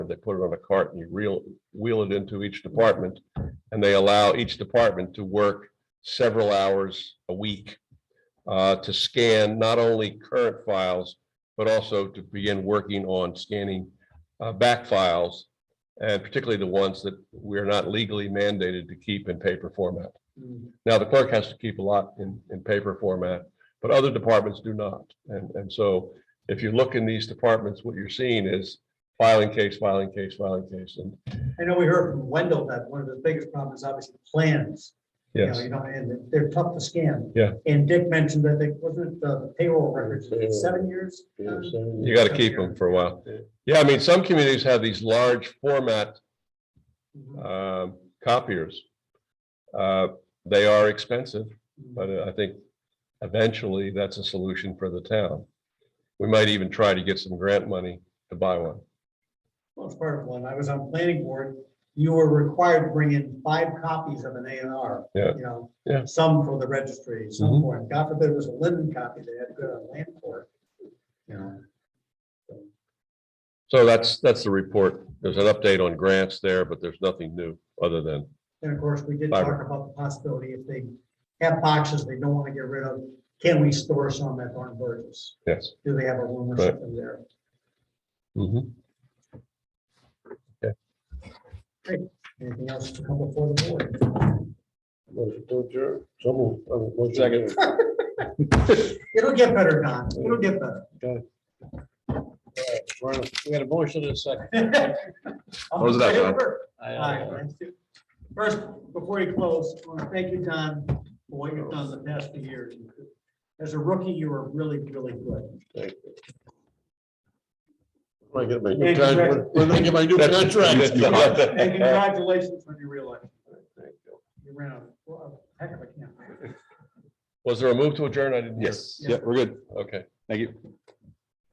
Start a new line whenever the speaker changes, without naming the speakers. They put it on a cart and you reel, wheel it into each department. And they allow each department to work several hours a week uh, to scan not only current files, but also to begin working on scanning uh, back files, and particularly the ones that we're not legally mandated to keep in paper format. Now, the clerk has to keep a lot in, in paper format, but other departments do not. And, and so if you look in these departments, what you're seeing is filing case, filing case, filing case, and
I know we heard from Wendell that one of the biggest problems is obviously plans. You know,
yes,
you know, and they're tough to scan.
Yeah.
And Dick mentioned that they, wasn't it uh, the payroll records, seven years? Um,
you got to keep them for a while. Yeah, I mean, some communities have these large format
mhm,
um, copiers. Uh, They are expensive.
mhm.
But uh, I think eventually that's a solution for the town. We might even try to get some grant money to buy one.
Well, it's part of one. I was on planning board. You were required to bring in five copies of an A and R.
Yeah.
You know.
Yeah.
Some for the registry, some
Mhm.
for, God forbid it was a Linden copy. They had to go to land court. You know.
So that's, that's the report. There's an update on grants there, but there's nothing new other than,
And of course, we did
Fiber.
talk about the possibility if they have boxes they don't want to get rid of, can we store some at Thornton Burgess?
yes.
Do they have a room or
Right.
something there?
Mhm.
Anything else to come before the board?
uh, Second.
It'll get better, Don. It'll get better.
We had a motion and a second.
Close it out, Don.
I,
All right,
uh,
let's do- First, before you close, I want to thank you, Don, for what you've done the past few years. As a rookie, you were really, really good.
When I get my
Yeah,
new contract,
correct.
when I get my new contract.
And congratulations on your reelection. You ran a well, a heck of a campaign.
Was there a move to adjourn? I didn't hear.
Yes, yeah, we're good.
Okay.
Thank you.